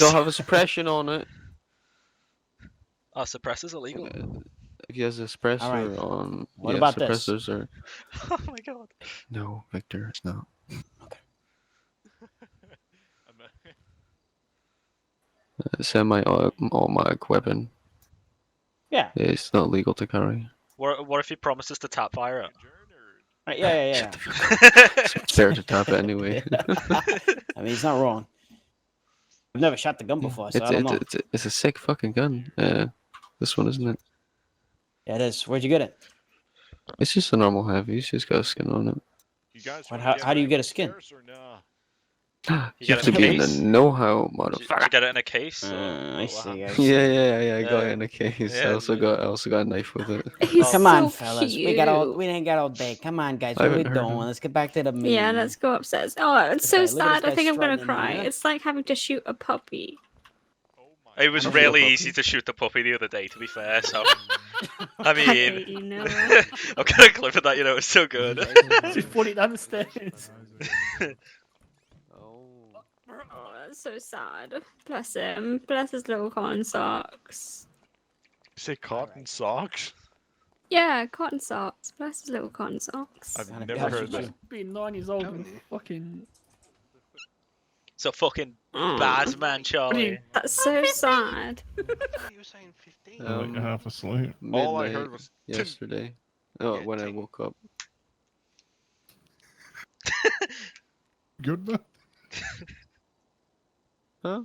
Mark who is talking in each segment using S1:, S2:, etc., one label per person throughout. S1: They'll have a suppression on it.
S2: Are suppressors illegal?
S1: If he has a suppressor
S3: Alright.
S1: on,
S3: What
S1: yeah,
S3: about this?
S1: suppressors are
S2: oh my god.
S1: no, Victor, it's not. A semi-automatic weapon.
S3: Yeah.
S1: It's not legal to carry.
S2: What, what if he promises to tap fire it?
S3: Right, yeah, yeah, yeah.
S1: It's fair to tap it anyway.
S3: I mean, he's not wrong. I've never shot the gun before, so
S1: Hmm. it's,
S3: I don't
S1: it's,
S3: know.
S1: it's, it's a sick fucking gun. Uh, this one isn't it?
S3: Yeah, it is. Where'd you get it?
S1: It's just a normal heavy. It's just got a skin on it.
S4: You guys
S3: What,
S4: wanna
S3: how-
S4: get
S3: how do you
S4: back
S3: get a
S4: to
S3: skin?
S4: Paris or nah?
S2: You
S1: You
S2: got
S1: have to
S2: it in a
S1: be in
S2: case?
S1: the know-how,
S2: Did you, did
S1: motherfucker.
S2: you get it in a case? or-
S3: Uh,
S2: or
S3: I
S2: what
S3: see.
S2: happened?
S3: I see.
S1: Yeah, yeah, yeah. I got
S2: Yeah.
S1: it in a case.
S2: Yeah,
S1: I also
S2: dude.
S1: got, I also got a knife with it.
S5: He's
S3: Oh, Come
S5: so
S3: on, fellas.
S5: Cute.
S3: We got all we didn't got all day. Come on, guys.
S1: I
S3: What are we
S1: haven't heard
S3: doing?
S1: him.
S3: Let's get back to the meeting.
S5: Yeah, let's go upstairs. Oh, it's
S3: Okay,
S5: so
S3: look at this
S5: sad. I
S3: guy
S5: think I'm
S3: strutting
S5: gonna
S3: in
S5: cry.
S3: here.
S5: It's like having to shoot a puppy.
S4: Oh my
S2: It was
S1: I'm
S4: God.
S1: sure
S2: really
S1: about
S2: easy
S1: it.
S2: to shoot the puppy the other day, to be fair. So, I
S5: Hey,
S2: mean,
S5: you know it.
S2: I've got a clip of that. You know, it's so good.
S6: She's falling downstairs.
S5: Oh, that's so sad. Bless him. Bless his little cotton socks.
S4: You say cotton socks?
S5: Yeah, cotton socks. Bless his little cotton socks.
S4: I've
S3: Son of
S4: never
S3: God,
S4: heard
S3: you
S4: that.
S3: just-
S6: Being nine years old and fucking.
S2: so fucking
S5: Aw,
S2: bad man, Charlie.
S5: That's so sad.
S1: Um,
S7: half asleep.
S4: All I heard
S1: midnight
S4: was "Tink."
S1: yesterday. Oh,
S4: Yeah,
S1: when I
S4: tink.
S1: woke up.
S7: Good man.
S1: Huh?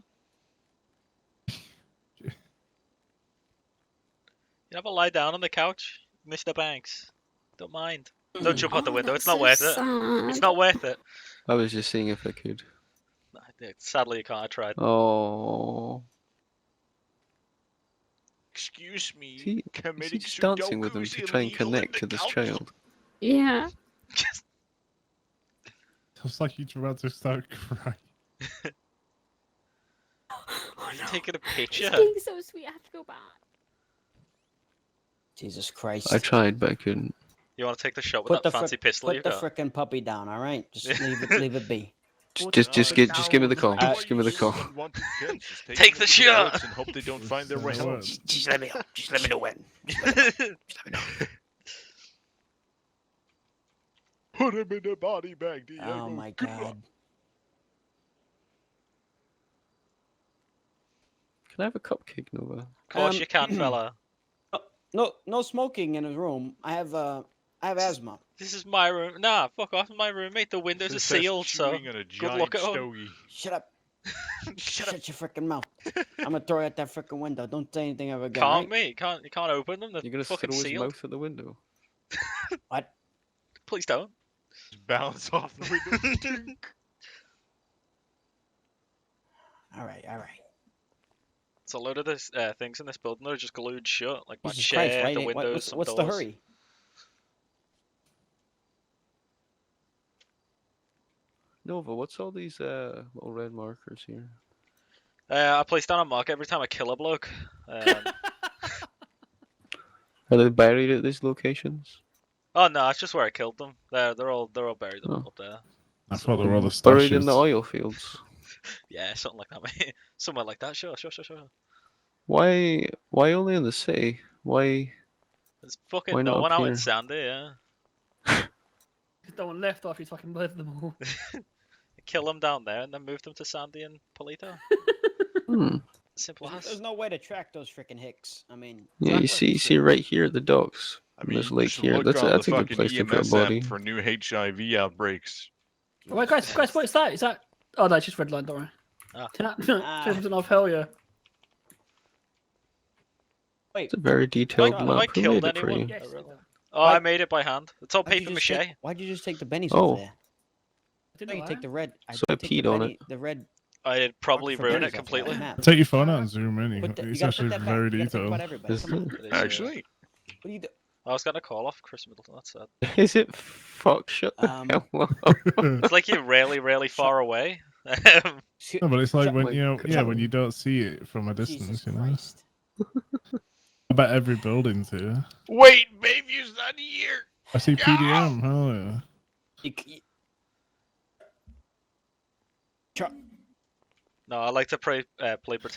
S2: You ever lie down on the couch, Mr. Banks? Don't mind.
S3: Hmm.
S2: Don't jump out the
S5: Oh,
S2: window.
S5: that's
S2: It's not
S5: so
S2: worth it.
S5: sad.
S2: It's not worth it.
S1: I was just seeing if I could.
S2: Nah, Sadly, you can't. I tried.
S1: Oh,
S4: Excuse me.
S1: is he, is he
S4: committing
S1: just dancing with him
S4: Sudokus
S1: to try and
S4: illegal in
S1: connect
S4: the
S1: to this
S4: couch?
S1: child?
S5: Yeah.
S2: Just-
S7: It's like you're about to start crying.
S5: Oh,
S2: you
S5: no.
S2: taking a
S5: It's
S2: picture.
S5: being so sweet. I have to go back.
S3: Jesus Christ.
S1: I tried, but I couldn't.
S2: You want to take the shot with
S3: Put
S2: that
S3: the frick-
S2: fancy pistol you
S3: Put the
S2: got?
S3: frickin' puppy down, all right? Just
S2: Yeah.
S3: leave it, leave it be.
S1: Just,
S6: What
S1: just,
S6: the
S1: just,
S6: hell
S1: gi-
S6: is
S1: just give me the
S6: that
S1: call.
S3: all
S1: Just give me the call.
S4: Want to kill, just
S2: Take the
S4: them into
S2: shot!
S4: woods And hope they don't find their way
S7: It's the
S4: out.
S7: worst.
S3: Just let me know. Just let me know when.
S4: Put him in a body bag, Diego.
S3: Oh my
S4: Good luck.
S3: God.
S1: Can I have a cupcake, Nova?
S2: Of course
S3: Um,
S2: you can, fella.
S3: No, no smoking in his room. I have uh, I have asthma.
S2: This is my room. Nah, fuck off. My roommate. The windows are
S4: It says
S2: sealed, so
S4: chewing on a
S2: good luck
S4: giant
S2: at home.
S4: stogie.
S3: Shut up.
S2: Shut
S3: Shut your frickin' mouth. I'm gonna throw you out that frickin' window. Don't say anything ever again.
S2: can't
S3: right?
S2: mate. Can't you can't open them? They're
S1: You're gonna
S2: fucking
S1: throw his
S2: sealed.
S1: mouth at the window.
S2: Please don't.
S4: Just bounce off the window. Tink.
S3: All right, all right.
S2: It's a load of this uh, things in this building that are just glued shut, like my
S3: Jesus
S2: chair,
S1: uh,
S3: Christ, why
S2: the
S3: ain't- why-
S2: windows,
S3: what's,
S2: some
S3: what's the
S2: doors.
S3: hurry?
S1: Nova, what's all these uh, little red markers here?
S2: Uh, I place down a mark every time I kill a bloke. Um,
S1: Are they buried at these locations?
S2: oh no, it's just where I killed them. They're they're all they're all buried up,
S1: Oh.
S2: up there.
S7: I thought there were other
S1: Buried in the
S7: stashes.
S1: oil fields.
S2: Yeah, something like that, mate. Somewhere like that. Sure, sure, sure, sure.
S1: Why? Why only in the city? Why?
S2: There's fucking
S1: Why
S2: no
S1: not
S2: one
S1: up
S2: out in
S1: here?
S2: Sandy. Yeah,
S6: There's no one left after he's fucking murdered them all.
S2: kill them down there and then move them to Sandy and Polito.
S1: Hmm.
S2: Simple as.
S3: There's, there's no way to track those frickin' hicks. I mean,
S1: Yeah, you see, you see right here at the docks.
S4: I
S1: And there's
S4: you
S1: lake
S4: should
S1: here.
S4: look
S1: That's a-
S4: on the
S1: that's a good
S4: fucking
S1: place to put a
S4: EMS app
S1: body.
S4: For new HIV outbreaks.
S6: Wait, guys, guys, what is that? Is that? Oh no, it's just red line. Don't worry.
S2: Ah.
S6: Ah.
S3: Ah.
S6: off. Hell yeah.
S3: wait.
S1: It's a very detailed
S2: have I
S1: map. Who
S2: killed
S1: made it for
S2: anyone?
S1: you?
S6: Yes.
S2: really?
S6: I did
S2: Oh, I
S3: Why-
S2: made it by hand. It's all
S3: why'd you
S2: paper
S3: just take-
S2: mache.
S3: why'd you just take the bennies
S1: Oh.
S3: off there? I
S6: know
S3: thought you
S6: that.
S3: take the red. I
S1: So I
S3: did take the
S1: peed on it.
S3: benny- The red.
S2: I'd probably
S3: fucking
S2: ruin
S3: bennies
S2: it
S3: off that
S2: completely.
S3: map.
S7: Take your phone out and zoom in.
S3: Put the- you
S7: It's
S3: gotta put
S7: actually
S3: that back.
S7: very
S3: You gotta think about
S7: detailed.
S3: everybody.
S1: Is
S3: Come on.
S1: it,
S2: It is, yeah.
S4: Actually,
S3: What are you do?
S2: I was gonna call off Chris Middleton. That's sad.
S1: is it fuck shut the
S3: Um,
S1: hell up?
S7: no,
S2: It's like you're really, really far away. Um,
S3: Shit,
S7: but it's like
S3: shut-
S7: when
S1: Like,
S7: you know, yeah, when you don't see it from a
S3: Jesus
S7: distance, you know.
S3: Christ.
S7: I bet every building's here.
S4: wait, baby's not here.
S7: I see PDM. Hell yeah.
S3: You c- you-
S2: no, No, I like to play uh, play pretend.